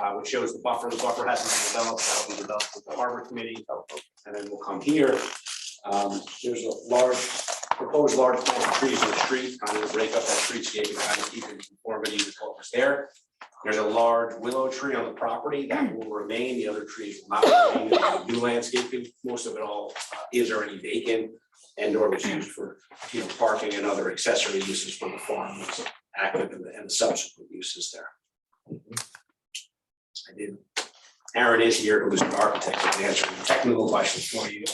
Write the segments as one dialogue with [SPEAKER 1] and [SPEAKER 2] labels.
[SPEAKER 1] uh, which shows the buffer, the buffer hasn't been developed, that'll be developed with the harbor committee, and then we'll come here. Um, there's a large, proposed large plant of trees in the street, kind of break up that streetscape and kind of keep in conformity with what was there. There's a large willow tree on the property that will remain, the other trees will not remain, There's new landscaping, most of it all uh, is already vacant. And or was used for, you know, parking and other accessory uses from the farm, was active and the- and the subsequent uses there. I did. Aaron is here, who is an architect, who can answer any technical questions for you,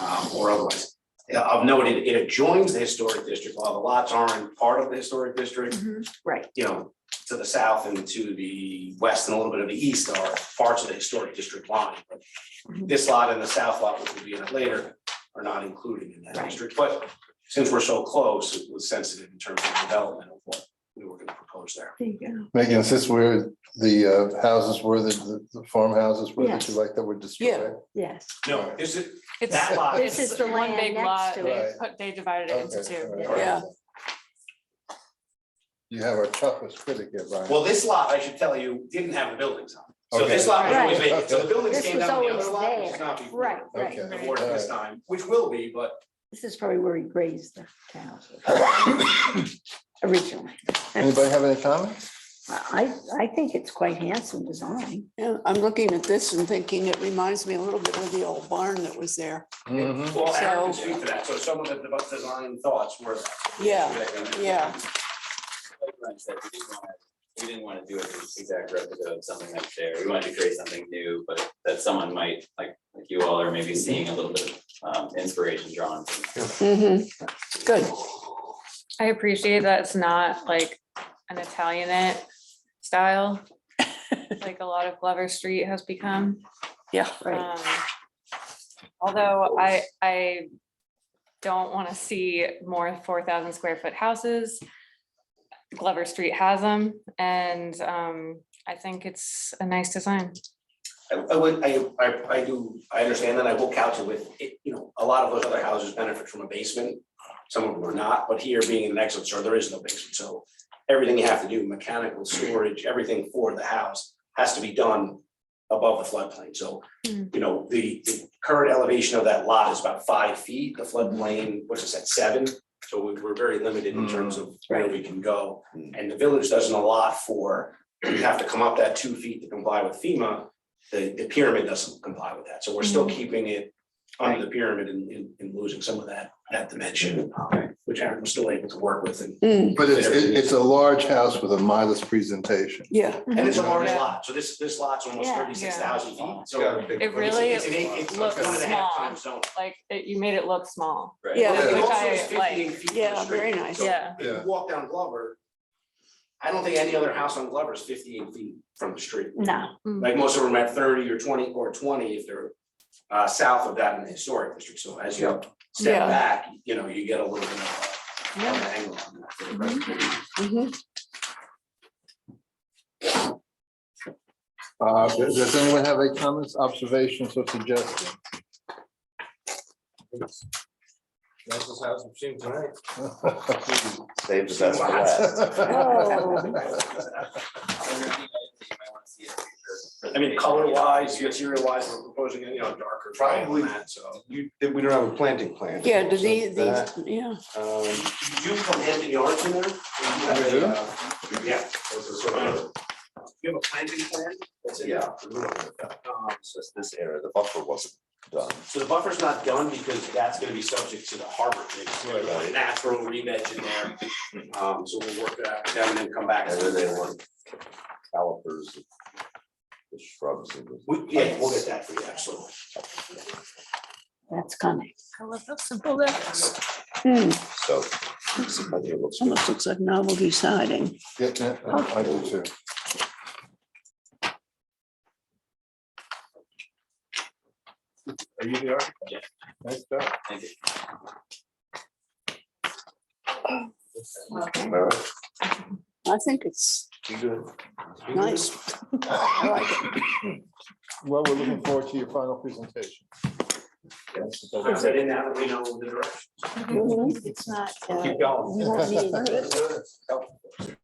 [SPEAKER 1] um, or otherwise. Yeah, I've noted, it adjoins the historic district, while the lots aren't part of the historic district,
[SPEAKER 2] Mm-hmm. Right,
[SPEAKER 1] you know, to the south and to the west and a little bit of the east are parts of the historic district line.
[SPEAKER 2] Mhm.
[SPEAKER 1] This lot and the south lot, which will be in it later, are not included in that
[SPEAKER 2] Right.
[SPEAKER 1] district, but since we're so close, it was sensitive in terms of development of what we were gonna propose there.
[SPEAKER 2] there you go.
[SPEAKER 3] Megan, is this where the uh, houses were, the- the the farmhouses were that you
[SPEAKER 2] Yes.
[SPEAKER 3] like that were destroyed?
[SPEAKER 2] Yes,
[SPEAKER 1] No, this is,
[SPEAKER 4] It's,
[SPEAKER 1] that lot
[SPEAKER 2] This is
[SPEAKER 4] it's
[SPEAKER 2] the
[SPEAKER 4] one
[SPEAKER 2] land
[SPEAKER 4] big
[SPEAKER 2] next
[SPEAKER 4] lot,
[SPEAKER 2] to
[SPEAKER 3] it.
[SPEAKER 4] they
[SPEAKER 3] Right.
[SPEAKER 4] put, they divided it into
[SPEAKER 3] Okay,
[SPEAKER 4] two.
[SPEAKER 3] all right.
[SPEAKER 5] Yeah,
[SPEAKER 3] You have our toughest critic here, Brian.
[SPEAKER 1] Well, this lot, I should tell you, didn't have the buildings on. it. So this
[SPEAKER 3] Okay.
[SPEAKER 1] lot was always
[SPEAKER 3] Right.
[SPEAKER 1] vacant, so the buildings
[SPEAKER 2] This
[SPEAKER 1] came
[SPEAKER 2] was
[SPEAKER 1] down the
[SPEAKER 2] always
[SPEAKER 1] other lot, which is
[SPEAKER 2] there.
[SPEAKER 1] not before.
[SPEAKER 2] right, right.
[SPEAKER 3] Okay.
[SPEAKER 1] The board at this time, which will be, but
[SPEAKER 2] This is probably where he grazed the cows originally.
[SPEAKER 3] Anybody have any comments?
[SPEAKER 2] I, I think it's quite handsome design.
[SPEAKER 5] yeah, I'm looking at this and thinking it reminds me a little bit of the old barn that was there.
[SPEAKER 3] Mhm.
[SPEAKER 1] Well, Aaron can
[SPEAKER 5] So-
[SPEAKER 1] speak to that, so some of the dev- design thoughts were.
[SPEAKER 5] Yeah,
[SPEAKER 1] um,
[SPEAKER 5] yeah.
[SPEAKER 6] like Glenn said, we didn't wanna, we didn't wanna do an exact replica of something that's there. We wanted to create something new, but that someone might, like, like you all are maybe seeing a little bit of um inspiration drawn from.
[SPEAKER 5] Mhm. Good,
[SPEAKER 4] I appreciate that it's not like an Italianate style, like a lot of Glover Street has become.
[SPEAKER 5] yeah,
[SPEAKER 2] Right.
[SPEAKER 4] Um, Although I, I don't want to see more four thousand square foot houses. Glover Street has them and um, I think it's a nice design.
[SPEAKER 1] I, I would, I, I, I do, I understand that, I will couch it with, it, you know, a lot of those other houses benefit from a basement. Some of them are not, but here being an excellent store, there is no basement, so everything you have to do, mechanical, storage, everything for the house has to be done above the floodplain, so, you
[SPEAKER 5] Mm.
[SPEAKER 4] Mhm.
[SPEAKER 1] know, the, the current elevation of that lot is about five feet, the floodplain, what's it, said seven? So we, we're very limited in terms of where we can go, and the village doesn't allot for, you have to come up that two feet to comply with FEMA, the, the pyramid doesn't comply with that, so we're still keeping it under the pyramid and, and, and losing some of that, that dimension, um, which Aaron was still able to work with, and,
[SPEAKER 5] Mm,
[SPEAKER 3] But it's, it- it's a large house with a modest presentation.
[SPEAKER 5] yeah,
[SPEAKER 1] and it's a large
[SPEAKER 4] Yeah.
[SPEAKER 1] lot, so this, this lot's almost
[SPEAKER 2] Yeah.
[SPEAKER 1] thirty-six thousand feet, so. it's-
[SPEAKER 4] It really
[SPEAKER 1] it's an eight- it's
[SPEAKER 4] looks
[SPEAKER 1] one and a half
[SPEAKER 4] small.
[SPEAKER 1] times zone.
[SPEAKER 4] Like, it- you made it look small.
[SPEAKER 6] Right.
[SPEAKER 5] Yeah.
[SPEAKER 1] Well, it
[SPEAKER 4] Which
[SPEAKER 1] also
[SPEAKER 4] I
[SPEAKER 1] is 15
[SPEAKER 4] like.
[SPEAKER 1] feet from the
[SPEAKER 5] yeah,
[SPEAKER 1] street.
[SPEAKER 5] very nice.
[SPEAKER 1] So-
[SPEAKER 4] Yeah.
[SPEAKER 1] If you
[SPEAKER 3] Yeah.
[SPEAKER 1] walk down Glover, I don't think any other house on Glover is fifty-eight feet from the street.
[SPEAKER 2] No,
[SPEAKER 1] Like most of them are at thirty or twenty or twenty if they're uh south of that in the historic district, so as you step
[SPEAKER 5] Yeah.
[SPEAKER 1] back, you know, you get a little bit of a- of an angle on that. for the presentation.
[SPEAKER 5] Mhm.
[SPEAKER 3] Uh, Does does anyone have any comments, observations, or suggestions?
[SPEAKER 7] Nicest house I've seen tonight.
[SPEAKER 8] Saves us for last.
[SPEAKER 6] You might wanna see it in your
[SPEAKER 1] I mean, color wise, material wise, we're proposing, you know, darker triangle on that, so.
[SPEAKER 7] You, we don't have a planting plan.
[SPEAKER 5] yeah, do
[SPEAKER 7] So
[SPEAKER 5] these,
[SPEAKER 7] that,
[SPEAKER 5] these, yeah,
[SPEAKER 7] um,
[SPEAKER 1] You do put Hampton Yards in there?
[SPEAKER 3] I do.
[SPEAKER 1] Yeah.
[SPEAKER 7] those are sort of-
[SPEAKER 1] You have a planting plan? That's in
[SPEAKER 8] Yeah.
[SPEAKER 1] there. Um,
[SPEAKER 8] It's just This area, the buffer wasn't done.
[SPEAKER 1] So the buffer's not done because that's gonna be subject to the harbor committee, so there's a
[SPEAKER 8] Right.
[SPEAKER 1] natural re-veg in there. Um, so we'll work that out with them and then come back.
[SPEAKER 8] And then they want calipers, of the shrubs. and the-
[SPEAKER 1] We, yeah, we'll get that for you, absolutely.
[SPEAKER 2] that's coming.
[SPEAKER 4] I love how simple that is.
[SPEAKER 5] Hmm,
[SPEAKER 8] So. I think it looks good.
[SPEAKER 5] almost looks like novelty siding.
[SPEAKER 3] Yeah, yeah, I do too.
[SPEAKER 7] Are you the architect?
[SPEAKER 6] Yeah.
[SPEAKER 7] Nice job.
[SPEAKER 6] Thank you.
[SPEAKER 8] Am I right?
[SPEAKER 5] I think it's nice. I like it.
[SPEAKER 3] Well, we're looking forward to your final presentation.
[SPEAKER 1] Put that in now that we know the direction.
[SPEAKER 2] It's not, uh,
[SPEAKER 1] Keep going.
[SPEAKER 2] you won't need-